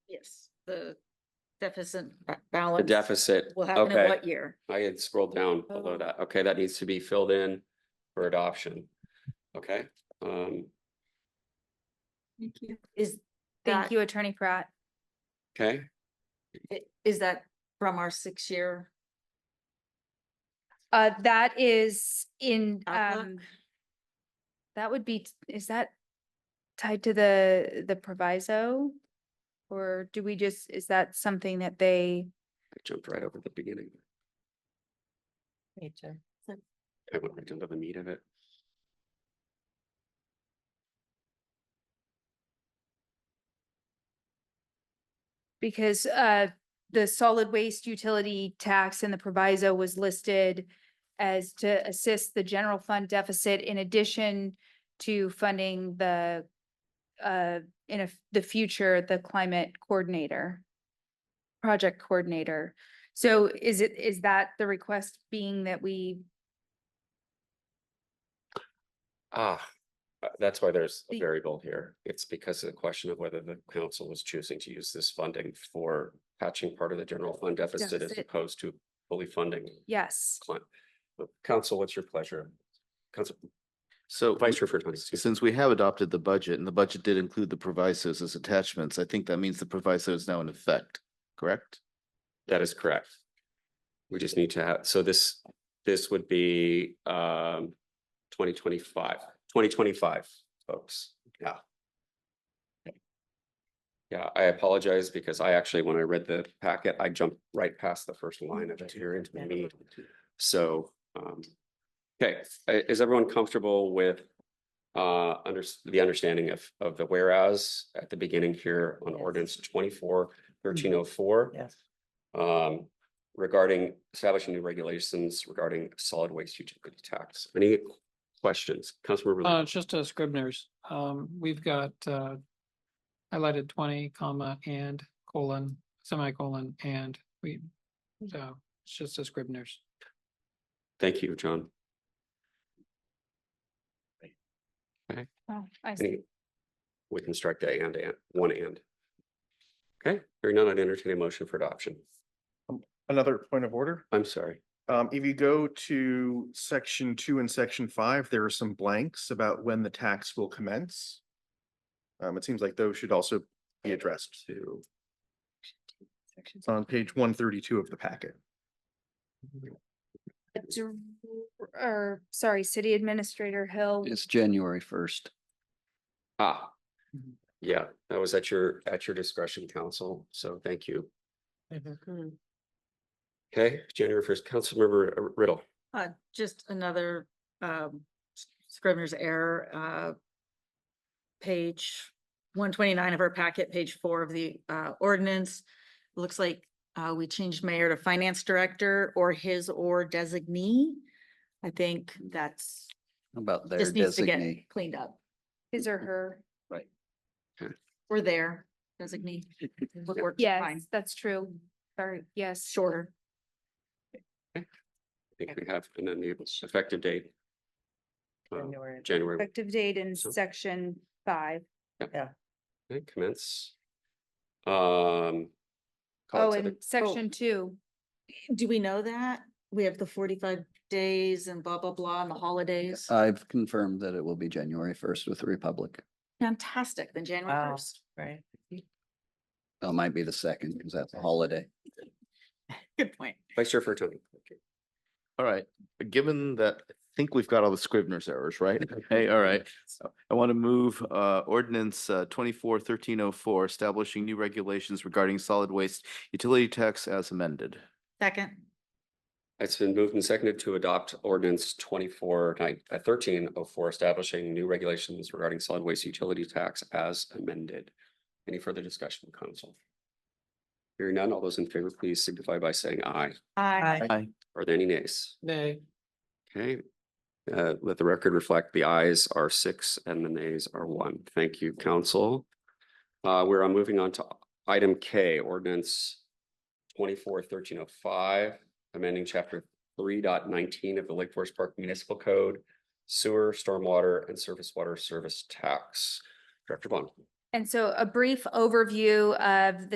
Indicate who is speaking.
Speaker 1: the deficit ba-
Speaker 2: The
Speaker 1: balance.
Speaker 2: deficit,
Speaker 1: Will happen in
Speaker 2: okay.
Speaker 1: what year?
Speaker 2: I had scrolled down below
Speaker 1: Oh.
Speaker 2: that. Okay, that needs to be filled in for adoption. Okay, um,
Speaker 3: Thank you.
Speaker 1: Is
Speaker 3: Thank
Speaker 1: that,
Speaker 3: you, Attorney Pratt.
Speaker 2: okay,
Speaker 1: i- is that from our six-year
Speaker 3: Uh, that is in,
Speaker 1: outlook?
Speaker 3: um, that would be, t- is that tied to the, the proviso? Or do we just, is that something that they,
Speaker 2: I jumped right over the beginning.
Speaker 4: Me too.
Speaker 2: I went right into the meat of it.
Speaker 3: because, uh, the solid waste utility tax and the proviso was listed as to assist the general fund deficit in addition to funding the, uh, in a f- the future, the climate coordinator, project coordinator. So is it, is that the request being that we
Speaker 2: Ah, uh, that's why there's a
Speaker 3: The-
Speaker 2: variable here. It's because of the question of whether the council was choosing to use this funding for patching part of the general fund deficit as
Speaker 3: Deficit.
Speaker 2: opposed to fully funding.
Speaker 3: Yes,
Speaker 2: cli- But Council, what's your pleasure? Council,
Speaker 5: So
Speaker 2: Vice Chair
Speaker 5: we-
Speaker 2: Furtado, excuse me.
Speaker 5: since we have adopted the budget and the budget did include the provisos as attachments, I think that means the proviso is now in effect, correct?
Speaker 2: That is correct. We just need to have, so this, this would be um 2025, 2025, folks, yeah. Yeah, I apologize because I actually, when I read the packet, I jumped right past the first line of it here into the meat. So um, okay, i- is everyone comfortable with uh under the understanding of of the whereas at the beginning here on
Speaker 4: Yes.
Speaker 2: ordinance twenty-four thirteen oh four?
Speaker 4: Yes.
Speaker 2: um, regarding establishing new regulations regarding solid waste utility tax. Any questions? Councilmember,
Speaker 6: Uh,
Speaker 2: Lee?
Speaker 6: it's just a Scribner's. Um, we've got, uh, highlighted twenty comma and colon, semicolon, and we, so it's just a Scribner's.
Speaker 2: thank you, John.
Speaker 3: Oh, I see.
Speaker 2: Any? We can strike the and, and, one and. Okay, hearing none, I'd entertain a motion for adoption.
Speaker 7: Another point of order.
Speaker 2: I'm sorry.
Speaker 7: Um, if you go to section two and section five, there are some blanks about when the tax will commence. Um, it seems like those should also be addressed to. It's on page one thirty-two of the packet.
Speaker 3: Dir- Or, sorry, City Administrator Hill.
Speaker 8: It's January first.
Speaker 2: Ah. Yeah, that was at your, at your discretion, council. So thank you.
Speaker 4: Mm-hmm.
Speaker 2: Okay, January first, Councilmember uh, Riddle.
Speaker 1: Uh, just another, um, s- scrivener's error, uh, page one twenty-nine of our packet, page four of the, uh, ordinance. Looks like, uh, we changed mayor to finance director or his or designee. I think that's,
Speaker 8: About their
Speaker 1: just needs to
Speaker 8: designee.
Speaker 1: get cleaned up.
Speaker 3: His or her.
Speaker 1: We're there, designee. would work
Speaker 3: Yes,
Speaker 1: fine.
Speaker 3: that's true. Sorry, yes.
Speaker 1: Shorter.
Speaker 2: I think we have an enabled effective date. uh,
Speaker 4: January.
Speaker 2: January
Speaker 3: Effective date in
Speaker 2: So-
Speaker 3: section five.
Speaker 2: Okay, commence. Um.
Speaker 3: Oh,
Speaker 2: call it to
Speaker 3: and
Speaker 2: the-
Speaker 3: section two.
Speaker 1: Do we know that? We have the forty-five days and blah, blah, blah, and the holidays.
Speaker 8: I've confirmed that it will be January first with the Republic.
Speaker 1: Fantastic, then January
Speaker 4: Wow.
Speaker 1: first.
Speaker 4: Right.
Speaker 8: Well, It might be the second because that's a holiday.
Speaker 1: Good point.
Speaker 2: Oh, Vice Chair Furtone.
Speaker 5: All right, given that, I think we've got all the Scrivener's errors, right? Okay, all right. I want to move uh ordinance uh twenty-four thirteen oh four, establishing new regulations regarding solid waste utility tax as amended.
Speaker 1: Second,
Speaker 2: It's been moved and seconded to adopt ordinance twenty-four nine, thirteen oh four, establishing new regulations regarding solid waste utility tax as amended. Any further discussion, council? Hearing none, all those in favor, please signify by saying aye.
Speaker 1: aye.
Speaker 5: Aye.
Speaker 2: Are there any nays?
Speaker 6: Nay,
Speaker 2: Okay. Uh, let the record reflect the ayes are six and the nays are one. Thank you, council. Uh, we're uh, moving on to item K, ordinance twenty-four thirteen oh five, amending chapter three dot nineteen of the Lake Forest Park Municipal Code, sewer, stormwater, and surface water service tax. Director Bond.
Speaker 3: And so a brief overview of